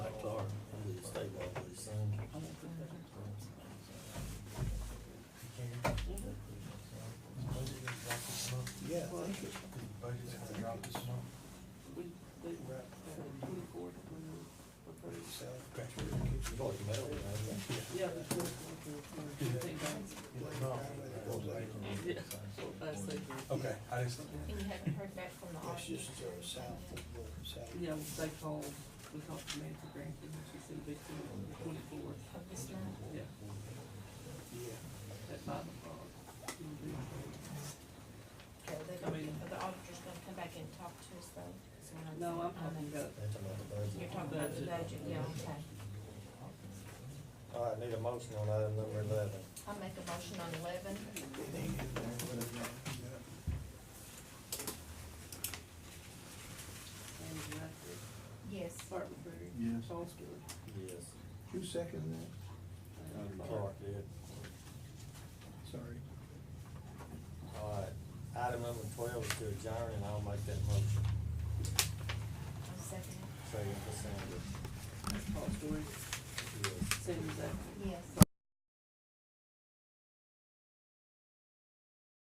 Well, Budget's gonna drop this month. we, we, We're at twenty-four, twenty, or thirty. Salad pressure. It's all metal, Yeah, the fourth one, the, the thing Yeah, I say, Okay, I just, And you haven't heard back from the That's auditor? just uh, south of the south. yeah, they called, we talked to Nancy Grantham, and she said it'd be the twenty-fourth, Of this month? yeah, Yeah. at five o'clock. It'll be- Okay, the, I mean- the auditor's gonna come back and talk to us though? So when No, I'm talking about, That's another budget. You're talking about the Budget. budget, yeah, okay. All right, need a motion on item number eleven. I'll make a motion on eleven. It ain't in there, but I've got it. Andy Rackford, Yes. Barton Berry. Yes. Paul Stewart. Yes. Who seconded that? and Clark did. Sorry. All right, item number twelve is to adjourn, and I'll make that